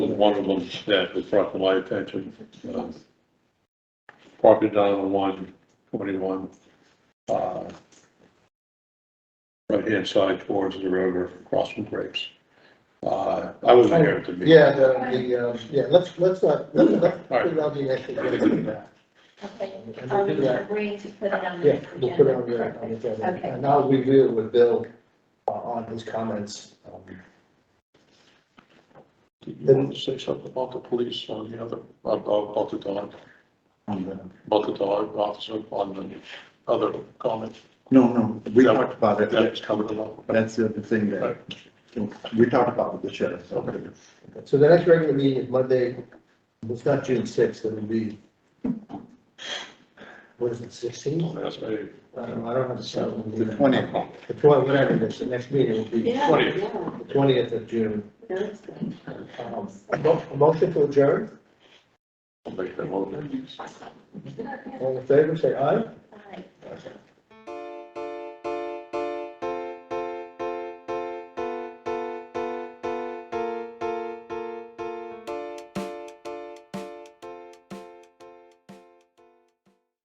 one of them that was brought to my attention. um, Property down on one twenty-one, uh, right-hand side towards the river, across from Grapes. Uh, I was there at the meeting. Yeah, the, the, um, yeah, let's, let's, not- let's, let's put it on the next agenda. Um, Okay, And are we'll we do that. agreeing to put it on the Yeah, next we'll put it on agenda? the, on the agenda. Okay. And I'll review it with Bill uh, on his comments. um, Did you want to say something about the police on the other, about, about the dog, on the- about the dog officer on the other comment No, no, we talked about that it. was covered along? That's the other thing that, we talked about with the sheriff. so- So the next regular meeting is Monday, it's not June sixth, it'll be, what is it, sixteen? That's a I don't know, I don't have a cell. The twentieth, The twelve, whatever it is, the next meeting will be Yeah, Twenty. yeah, the twentieth of June. Thursday. Um, a mo- a Motion to adjourn, I'll make that motion. all in favor, say aye.